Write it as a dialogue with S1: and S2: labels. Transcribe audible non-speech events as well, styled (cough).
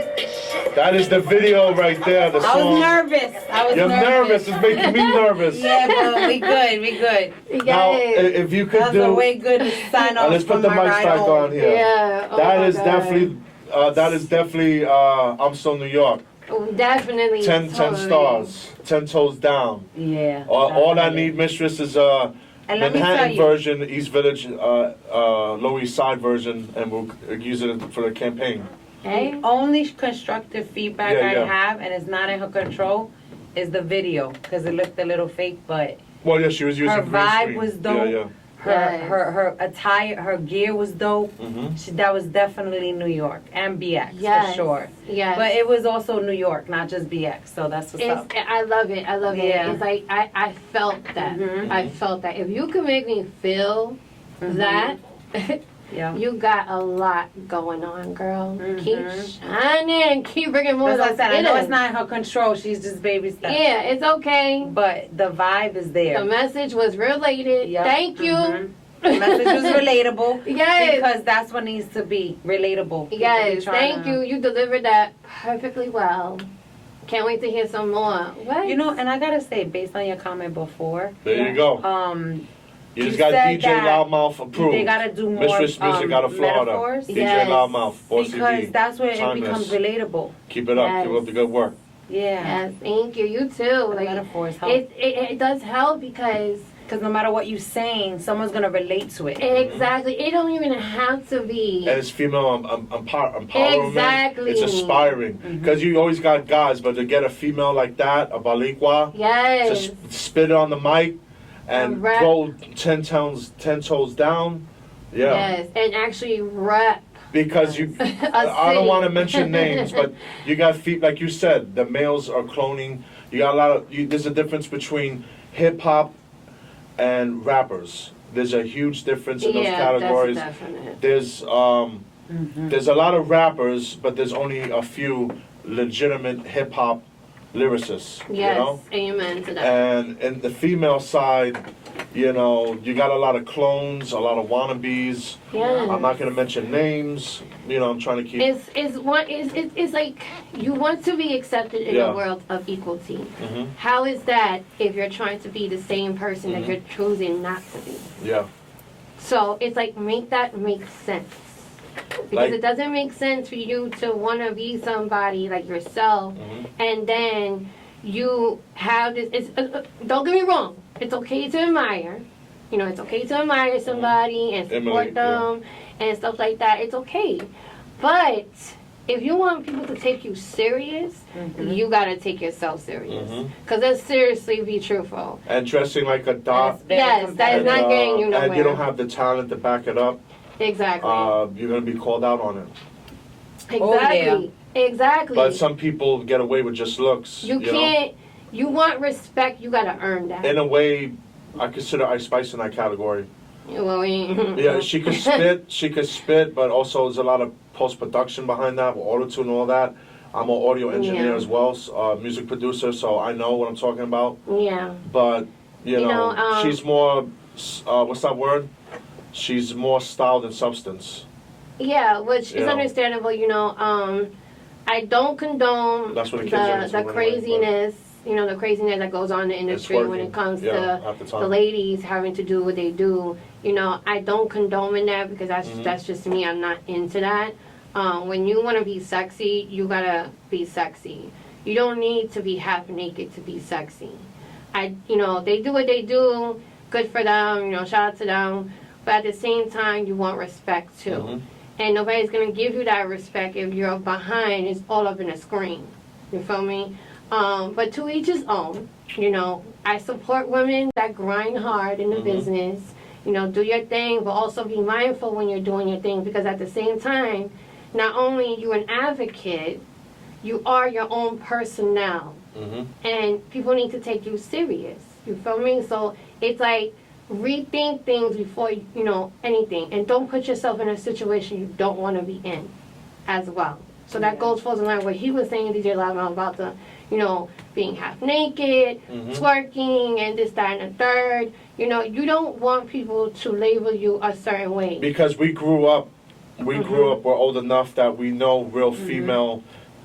S1: That is the video right there, the
S2: I was
S1: song.
S2: nervous. I was
S1: You're nervous,
S2: nervous.
S1: it's making
S2: (laughs)
S1: me nervous.
S2: Yeah, but we good. We good.
S3: You got
S1: Now, eh, i-
S3: it.
S1: if you could
S2: That was a
S1: do,
S2: way good sign
S1: uh,
S2: off.
S1: let's put
S2: from
S1: the
S2: my
S1: mics
S2: ride
S1: back
S2: home.
S1: on here.
S3: yeah. oh
S1: That
S3: my
S1: is
S3: God.
S1: definitely, uh, that is definitely, uh, I'm so New York.
S3: Oh, definitely.
S1: Ten, ten
S3: totally.
S1: stars, ten toes down.
S2: Yeah.
S1: Uh, all I
S2: love it.
S1: need, mistress, is a
S2: And let me tell
S1: Manhattan
S2: you,
S1: version, East Village, uh, uh, Lower East Side version, and we'll uh, use it for the campaign.
S3: Hey?
S2: only constructive feedback
S1: Yeah,
S2: I
S1: yeah.
S2: have, and it's not in her control, is the video because it looked a little fake, but
S1: Well, yeah, she was using
S2: Her
S1: green
S2: vibe
S1: screen.
S2: was
S1: Yeah,
S2: dope.
S1: yeah.
S2: her
S3: Yes.
S2: her her attire, her gear was dope.
S1: Mhm.
S2: She, that was definitely New York and BX
S3: Yes.
S2: for sure.
S3: Yes.
S2: But it was also New York, not just BX. So that's what's
S3: It's,
S2: up.
S3: I love it. I love
S2: Yeah.
S3: it. It's like I, I felt that.
S2: Mhm.
S3: I felt that. If you can make me feel
S2: Mm-hmm.
S3: that, (laughs)
S2: Yeah.
S3: you got a lot going on, girl.
S2: Mhm.
S3: Keep shining. Keep bringing more.
S2: That's what I
S3: of
S2: said. I
S3: it
S2: know
S3: in.
S2: it's not in her control. She's just baby steps.
S3: Yeah, it's okay.
S2: But the vibe is
S3: The
S2: there.
S3: message was related.
S2: Yep.
S3: Thank you.
S2: Mhm. The message
S3: (laughs)
S2: was relatable.
S3: Yes.
S2: Because that's what needs to be relatable. People be
S3: Yes,
S2: trying
S3: thank
S2: to-
S3: you. You delivered that perfectly well. Can't wait to hear some more. What?
S2: You know, and I gotta say, based on your comment before,
S1: There you go.
S2: um,
S1: You
S2: You
S1: just got
S2: said
S1: DJ
S2: that
S1: Loudmouth
S2: they
S1: approved.
S2: gotta do more
S1: Mistress Music
S2: um,
S1: out of Florida.
S2: metaphors
S1: DJ
S3: Yes.
S1: Loudmouth,
S2: because
S1: OCD.
S2: that's where it
S1: Timeless.
S2: becomes relatable.
S1: Keep it up. Keep
S3: Yes.
S1: up the good work.
S2: Yeah,
S3: Yes, thank you. You too.
S2: the
S3: Like
S2: metaphors help
S3: it, it, it does help because
S2: because no matter what you're saying, someone's gonna relate to it.
S3: exactly it don't even have to be.
S1: And it's female um, um, empower, empowerment.
S3: Exactly. Mm-hmm.
S1: It's inspiring. Because you always got guys, but to get a female like that, a Balikwa, to
S3: Yes.
S1: sp- spit it on the mic and
S3: Correct.
S1: go 10 tones, 10 toes down. Yeah.
S3: Yes, and actually rep. (laughs)
S1: Because you,
S3: A
S1: I don't
S3: city.
S1: want to
S3: (laughs)
S1: mention names, but you got feet, like you said, the males are cloning. You got a lot of, you, there's a difference between hip hop and rappers. There's a huge difference in those
S3: yeah,
S1: categories.
S3: that's Mm-hmm. definite.
S1: There's um, there's a lot of rappers, but there's only a few legitimate hip hop lyricists.
S3: Yes,
S1: You know?
S3: amen to that.
S1: And in the female side, you know, you got a lot of clones, a lot of wannabes.
S3: yes.
S1: I'm not gonna mention names. You know, I'm trying to keep.
S3: It's it's one it's, it's, it's like you want to be accepted in
S1: Yeah.
S3: a world of equality.
S1: Mhm.
S3: How is that if you're trying to be the same person that you're choosing not to be?
S1: Yeah.
S3: So it's like make that make sense. Because
S1: Like-
S3: it doesn't make sense for you to want to be somebody like yourself,
S1: Mhm.
S3: and then you have this. It's, uh, uh, don't get me wrong. It's okay to admire. You know, it's okay to admire somebody and support
S1: Emulate, Mm-hmm. yeah.
S3: them and stuff like that. It's okay. But if you want people to take you serious,
S2: Mm-hmm.
S3: you gotta take yourself serious.
S1: Mhm.
S3: Cause let's seriously be truthful.
S1: And dressing like a
S2: And
S1: dot.
S2: it's very
S3: Yes, that is
S2: competitive.
S3: not getting you
S1: uh,
S3: nowhere.
S1: And you don't have the talent to back it up.
S3: exactly.
S1: Uh, you're gonna be called out on it.
S2: Oh, yeah.
S3: Exactly. Exactly.
S1: But some people get away with just looks. You,
S3: you
S1: know? uh,
S3: can't. You want respect. You gotta earn that.
S1: In a way, I consider Ice Spice in that category.
S3: You know what I
S1: (laughs)
S3: mean?
S1: Yeah,
S3: (laughs)
S1: she could spit. She could spit, but also there's a lot of post production behind that with auto tune and all that. I'm an audio engineer
S3: Yeah.
S1: as well, so, uh, music producer, so I know what I'm talking about.
S3: yeah.
S1: But you,
S3: You
S1: know,
S3: know, um,
S1: she's more. s- Uh, what's that word? She's more style than substance.
S3: Yeah, which is
S1: Yeah.
S3: understandable. You know, um, I don't condone
S1: That's what the kids are into
S3: the, the
S1: anyway, but-
S3: craziness. you know, the craziness that goes on in the
S1: It's
S3: industry when
S1: working,
S3: it comes
S1: yeah, Um,
S3: to
S1: at the
S3: the
S1: time.
S3: ladies having to do what they do. You know, I don't condone in that because that's
S1: Mhm.
S3: that's just me. I'm not into that. Um, when you want to be sexy, you gotta be sexy. You don't need to be half naked to be sexy. I, you know, they do what they do. Good for them. You know, shout out to them. But at the same time, you want respect too.
S1: Mhm.
S3: And nobody's gonna give you that respect if you're behind. It's all up in a screen. You feel me? Um, but to each his own. You know, I support women that grind hard in the
S1: Mhm.
S3: business. You know, do your thing, but also be mindful when you're doing your thing because at the same time, not only you an advocate, you are your own personnel,
S1: hmm
S3: and people need to take you serious. You feel me? So it's like rethink things before you you know anything, and don't put yourself in a situation you don't want to be in, as well. So that
S2: Yeah.
S3: goes falls in line with what he was saying, DJ Lavin, about the you know being half naked,
S1: Mhm.
S3: twerking, and this, that, and the third. You know, you don't want people to label you a certain way. Mm-hmm.
S1: Because we grew up, we grew up. We're old enough that we know real female